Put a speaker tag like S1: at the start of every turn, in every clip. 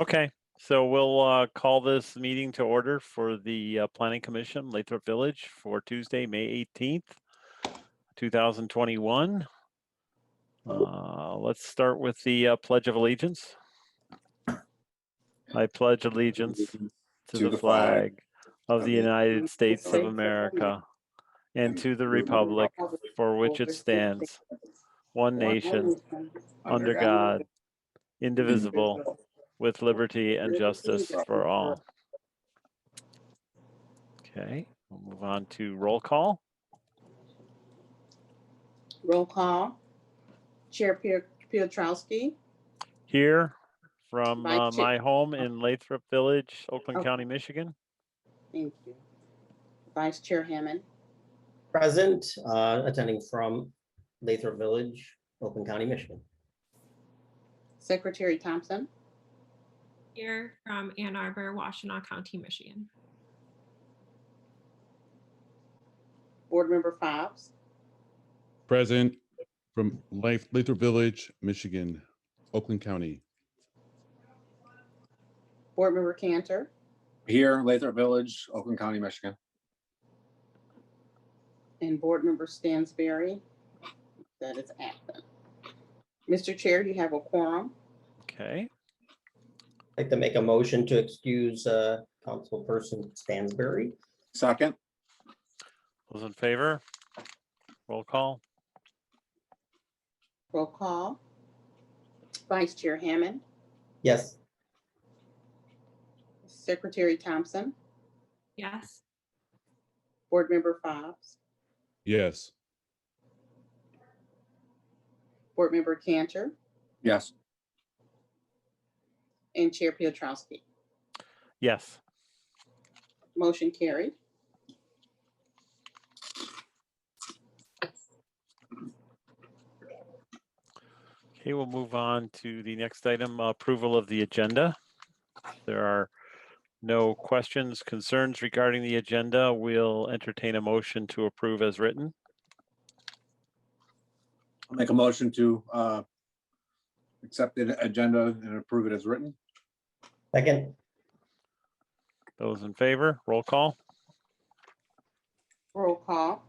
S1: Okay, so we'll uh, call this meeting to order for the uh, Planning Commission, Lathrop Village, for Tuesday, May 18th, 2021. Uh, Let's start with the uh, Pledge of Allegiance. I pledge allegiance to the flag of the United States of America and to the republic for which it stands, one nation, under God, indivisible, with liberty and justice for all. Okay, we'll move on to roll call.
S2: Roll call. Chair Pier- Pietrowski,
S1: Here from
S2: Mike
S1: uh,
S2: Chi-
S1: my home in Lathrop Village, Oakland
S2: Oh.
S1: County, Michigan.
S2: thank you. Vice Chair Hammond,
S3: Present, uh, attending from Lathrop Village, Oakland County, Michigan.
S2: Secretary Thompson,
S4: Here from Ann Arbor, Washtenaw County, Michigan.
S2: Board Member Fobbs,
S5: Present from Life, Lathrop Village, Michigan, Oakland County.
S2: Board Member Cantor,
S6: Here, Lathrop Village, Oakland County, Michigan.
S2: and Board Member Stansberry. That is absent. Mr. Chair, you have a quorum.
S1: Okay,
S3: I'd like to make a motion to excuse, uh, Councilperson Stansberry.
S6: Second,
S1: those in favor? Roll call.
S2: Roll call. Vice Chair Hammond,
S3: Yes,
S2: Secretary Thompson,
S4: Yes,
S2: Board Member Fobbs,
S5: Yes,
S2: Board Member Cantor,
S6: yes,
S2: and Chair Pietrowski.
S1: Yes,
S2: Motion carried.
S1: okay, we'll move on to the next item, uh, approval of the agenda. There are no questions, concerns regarding the agenda. We'll entertain a motion to approve as written.
S6: I'll make a motion to uh, accept the agenda and approve it as written.
S3: second,
S1: Those in favor, roll call.
S2: Roll call.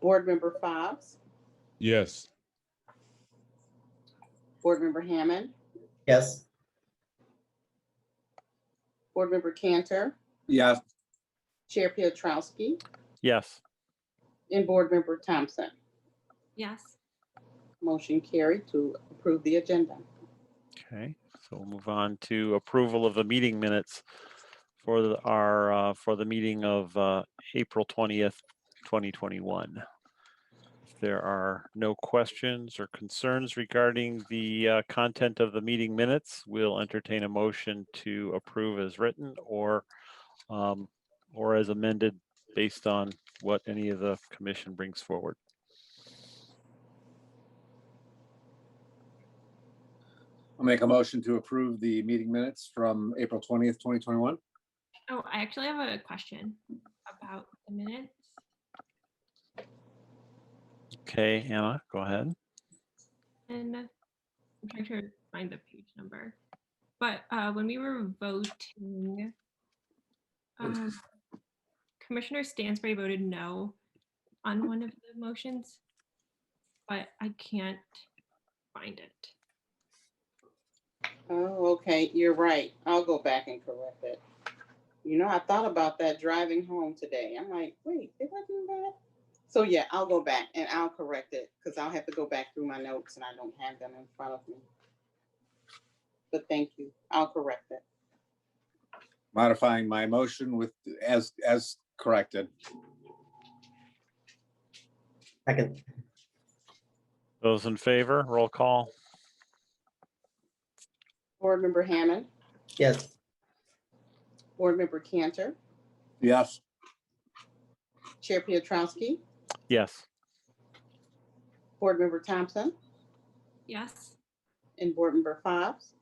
S2: Board Member Fobbs,
S5: yes,
S2: Board Member Hammond,
S3: yes,
S2: Board Member Cantor,
S6: Yes,
S2: Chair Pietrowski,
S1: Yes,
S2: and Board Member Thompson.
S4: yes,
S2: Motion carried to approve the agenda.
S1: okay, so we'll move on to approval of the meeting minutes for the- our, uh, for the meeting of uh, April 20th, 2021. If There are no questions or concerns regarding the uh, content of the meeting minutes. We'll entertain a motion to approve as written or, um, or as amended based on what any of the commission brings forward.
S6: I'll make a motion to approve the meeting minutes from April twentieth, twenty twenty-one.
S4: oh, I actually have a question about the minutes.
S1: Okay, Anna, go ahead.
S4: And I'm trying to find the page number, but uh, when we were voting, um, Commissioner Stansbury voted no on one of the motions, but I can't find it.
S2: Oh, okay, you're right. I'll go back and correct it. You know, I thought about that driving home today. I'm like, wait, did I do that? So yeah, I'll go back and I'll correct it because I'll have to go back through my notes and I don't have them in front of me. But thank you. I'll correct it.
S6: Modifying my motion with, as, as corrected.
S3: second,
S1: Those in favor, roll call.
S2: Board Member Hammond,
S3: yes,
S2: Board Member Cantor,
S6: Yes,
S2: Chair Pietrowski,
S1: Yes,
S2: Board Member Thompson,
S4: Yes,
S2: and Board Member Fobbs.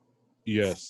S5: yes,